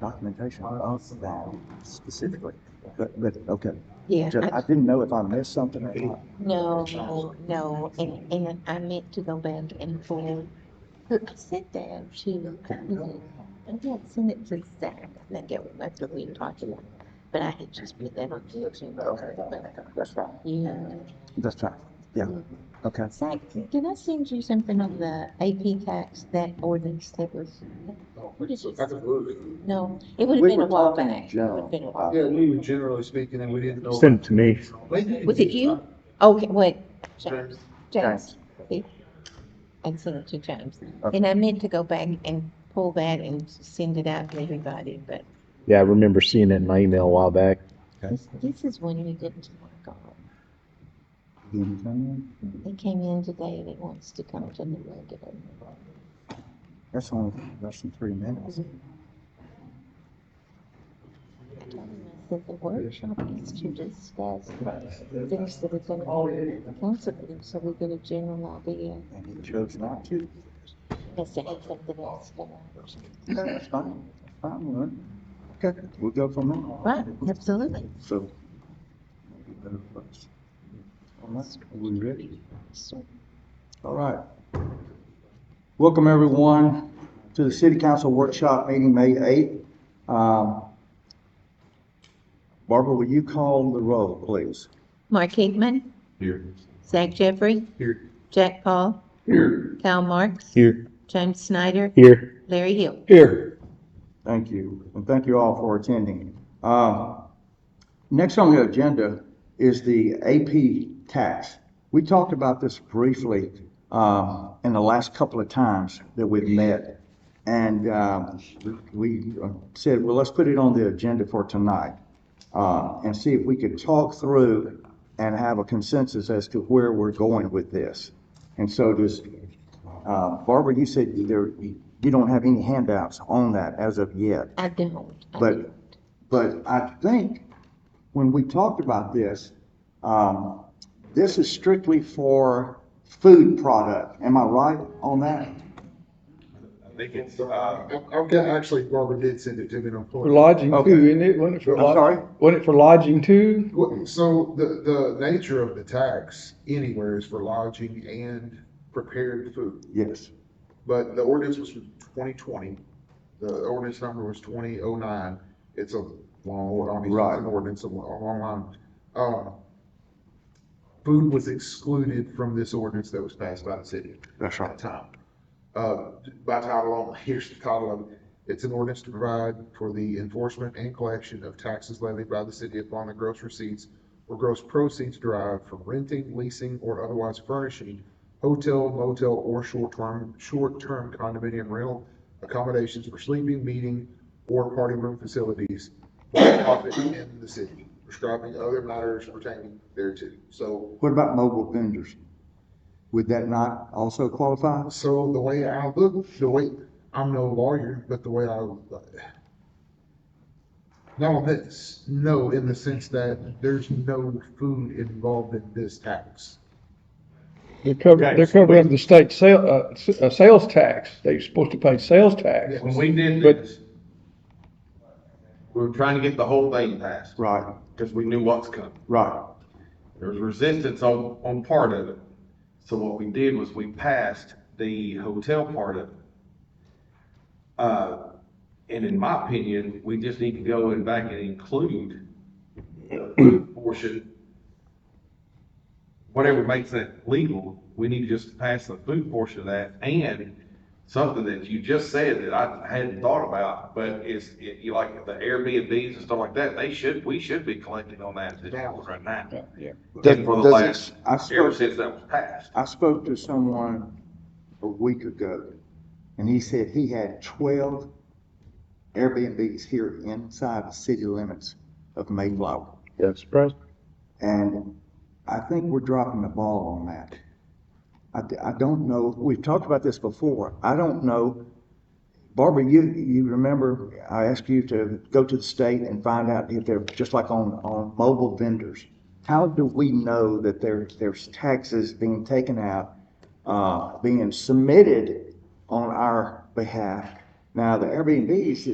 documentation of that specifically, but, but, okay. Yeah, Just- I- I didn't know if I missed something or not. no, no, no, and, and I meant to go back and forward. I sent that to, I didn't send it to Zach, I think it was, that's what we were talking about. But I had just put that on the agenda. That's right. Yeah. That's right, yeah, Mm-hmm. okay. Zach, did I send you something on the AP tax, that ordinance that was? What is it? Absolutely. No, it would have We been a were while talking back. It general. would've been a while. Yeah, we were generally speaking and we didn't know. Send it to me. Was it you? Oh, Okay, wait, James, James. James. see? And send it to James. Okay. And I meant to go back and pull that and send it out to everybody, but Yeah, I remember seeing it in my email a while back. this, this is one we didn't work on. They came in today, they wants to come to the regular. That's only less than three minutes. I told them I said the workshop is to discuss things that are gonna be on the council, meeting, so we get a general idea. And he chose not to. Unless they have something else going on. Okay, That's fine, that's fine, Lynn. Okay, we'll go from there. Right, absolutely. So. Unless we're ready. So- All right. Welcome, everyone, to the City Council Workshop Meeting, May 8th. Um, Barbara, will you call the roll, please? Mark Higman, Here. Zach Jeffrey, Here. Jack Paul, Here. Cal Marks, Here. James Snyder, Here. Larry Hill. Here. Thank you, and thank you all for attending. Um, Next on the agenda is the AP tax. We talked about this briefly um, in the last couple of times that we've met. And um, we uh, said, well, let's put it on the agenda for tonight uh, and see if we could talk through and have a consensus as to where we're going with this. And so does, uh, Barbara, you said there, you don't have any handouts on that as of yet. I don't. I But- don't. But I think when we talked about this, um, this is strictly for food product. Am I right on that? I think it's, uh, okay, actually Barbara did send it to me on. For lodging Okay. too, isn't it? Wasn't it for I'm lodging? sorry? Wasn't it for lodging too? Well, So the, the nature of the tax anywhere is for lodging and prepared food. Yes. But the ordinance was from twenty twenty. The ordinance number was twenty oh nine. It's a long, ord- obviously, it's Right. an ordinance, a lo- a long line. Uh, Food was excluded from this ordinance that was passed by the city. That's by title. Uh, by title only, here's the title of it. It's an ordinance to provide for the enforcement and collection of taxes levied by the city upon the gross receipts or gross proceeds derived from renting, leasing, or otherwise furnishing hotel, motel, or short-term, short-term condominium rental accommodations for sleeping, meeting, or party room facilities for profit in the city, prescribing other matters pertaining thereto. So What about mobile vendors? Would that not also qualify? So the way I look, the way, I'm no lawyer, but the way I, no, that's, no, in the sense that there's no food involved in this tax. They're covering, Okay, they're so covering the state sale, uh, s- uh, sales tax. They're supposed to pay sales tax. Yeah. When we did But- this, we were trying to get the whole thing passed, Right, because we knew what's coming. right, There was resistance on, on part of it. So what we did was we passed the hotel part of it. Uh, and in my opinion, we just need to go and back and include the food portion. Whatever makes that legal, we need to just pass the food portion of that and something that you just said that I hadn't thought about, but is, it, you like the Airbnbs and stuff like that, they should, we should be collecting on that as well right now. Yeah. Does- And for the does it- last, I suppose- ever since that was passed. I spoke to someone a week ago, and he said he had twelve Airbnbs here inside the city limits of Mayflower. Yeah, surprise. And I think we're dropping the ball on that. I, d- I don't know, we've talked about this before. I don't know. Barbara, you, you remember I asked you to go to the state and find out if they're, just like on, on mobile vendors. How do we know that there, there's taxes being taken out, uh, being submitted on our behalf? Now, the Airbnbs